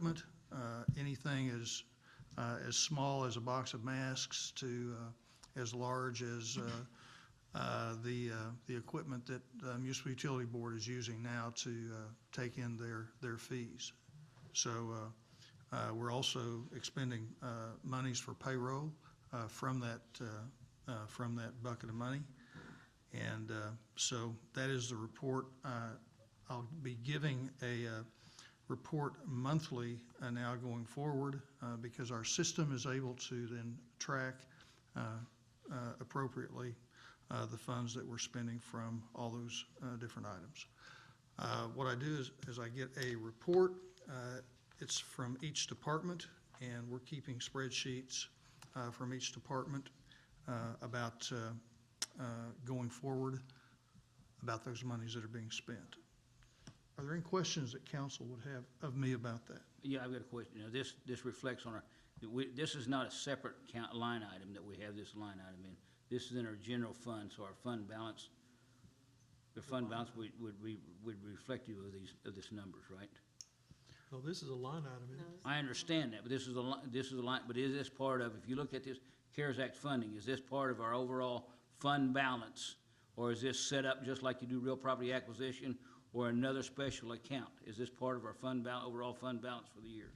equipment, uh, anything as, uh, as small as a box of masks to uh, as large as uh, uh, the, uh, the equipment that the Municipal Utility Board is using now to uh, take in their, their fees. So uh, uh, we're also expending uh, monies for payroll uh, from that, uh, uh, from that bucket of money. And uh, so that is the report. Uh, I'll be giving a uh, report monthly uh, now going forward uh, because our system is able to then track uh, uh, appropriately uh, the funds that we're spending from all those uh, different items. Uh, What I do is, is I get a report. uh, It's from each department, and we're keeping spreadsheets uh, from each department uh, about uh, uh, going forward, about those monies that are being spent. Are there any questions that council would have of me about that? Yeah, I've got a question. Now, this, this reflects on our, that we- this is not a separate count, line item that we have this line item in. This is in our general fund, so our fund balance, the fund balance would, would be, would be reflective of these, of this numbers, right? No, Oh, this is a line item, isn't it? I understand that, but this is a li, this is a line, but is this part of, if you look at this CARES Act funding, is this part of our overall fund balance? Or is this set up just like you do real property acquisition or another special account? Is this part of our fund bal, overall fund balance for the year?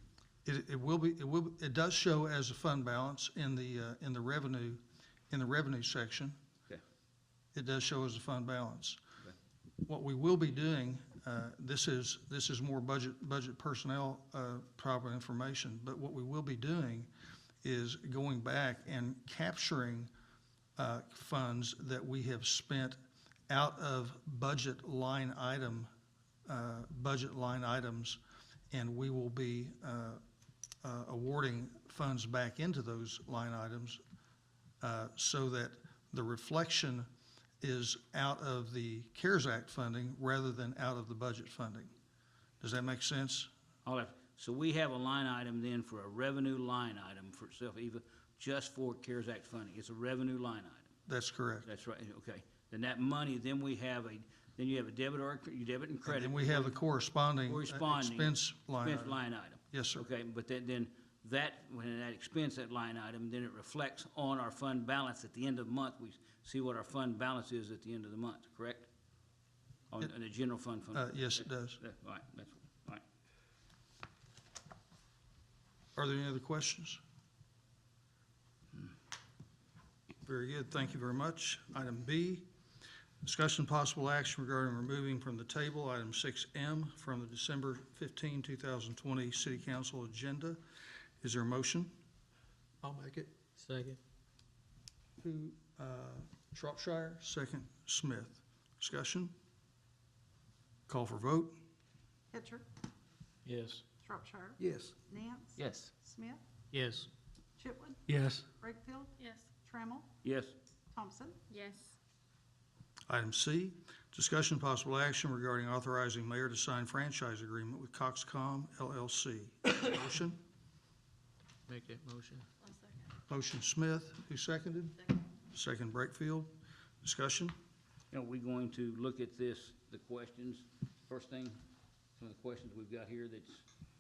It, it will be, it will, it does show as a fund balance in the, uh, in the revenue, in the revenue section. Okay. It does show as a fund balance. Okay. What we will be doing, uh, this is, this is more budget, budget personnel, uh, proper information, but what we will be doing is going back and capturing, uh, funds that we have spent out of budget line item, uh, budget line items, and we will be, uh, uh, awarding funds back into those line items uh, so that the reflection is out of the CARES Act funding rather than out of the budget funding. Does that make sense? All right, so we have a line item then for a revenue line item for itself, even just for CARES Act funding, it's a revenue line item, That's correct. that's right, okay. Then that money, then we have a, then you have a debit or, a cre- you debit and And credit. then we have the corresponding uh, Corresponding expense line Expense item. line item. Yes, sir. Okay, but then, then that, when that expense, that line item, then it reflects on our fund balance at the end of the month, we see what our fund balance is at the end of the month, correct? On, on the general fund fund. Uh, Yes, it does. Yeah, All right, that's, all right. Are there any other questions? Very good, thank you very much. Item B, discussion and possible action regarding removing from the table item 6M from the December 15, 2020 City Council agenda. Is there a motion? I'll make it. Second. Who? Shropshire. Second, Smith. Discussion? Call for vote? Hitcher, Yes. Shropshire, Yes. Nance, Yes. Smith, Yes. Chipwood, Yes. Wakefield, Yes. Trammell, Yes, Thompson, Yes. Item C, discussion and possible action regarding authorizing mayor to sign franchise agreement with Coxcom LLC. Motion? Make that motion. One second. Motion Smith, who seconded? Second. Second Breakfield. Discussion? Are we going to look at this, the questions, first thing, some of the questions we've got here that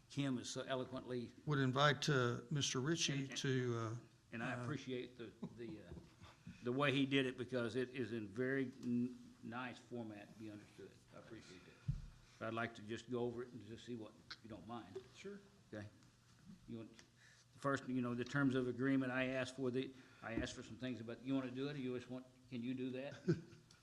Kim is so eloquently, Would invite uh, Mr. Ritchie to, uh, and I appreciate the, the, uh, the way he did it, because it is in very n- nice format to be understood. I appreciate that. But I'd like to just go over it and just see what, if you don't mind. Sure. Okay. You want, first, you know, the terms of agreement, I asked for the, I asked for some things about, you wanna do it, or you just want, can you do that?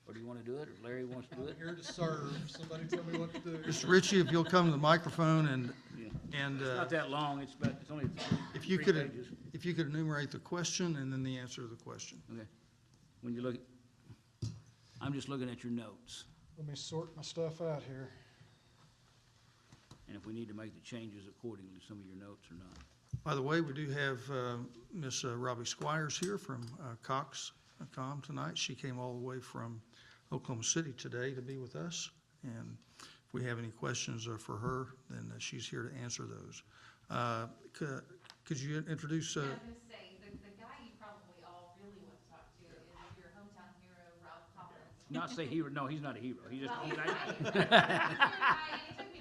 Or do you wanna do it, or Larry wants to do it? Here to serve. Somebody tell me what to do. Mr. Ritchie, if you'll come to the microphone and, Yeah. and It's uh, not that long, it's about, it's only three if you three could, pages. if you could enumerate the question and then the answer to the question. Okay, when you look, I'm just looking at your notes, Let me sort my stuff out here. and if we need to make the changes accordingly, some of your notes or not. By the way, we do have uh, Miss uh, Robbie Squires here from uh, Cox.com tonight. She came all the way from Oklahoma City today to be with us. And if we have any questions uh, for her, then uh, she's here to answer those. Uh, c- Could you introduce, uh, I was gonna say, the, the guy you probably all really want to talk to is your hometown hero, Ralph Collins. Not say hero, no, he's not a hero, he just, Well, he- he's I- my- he's my guy, and he took Uh,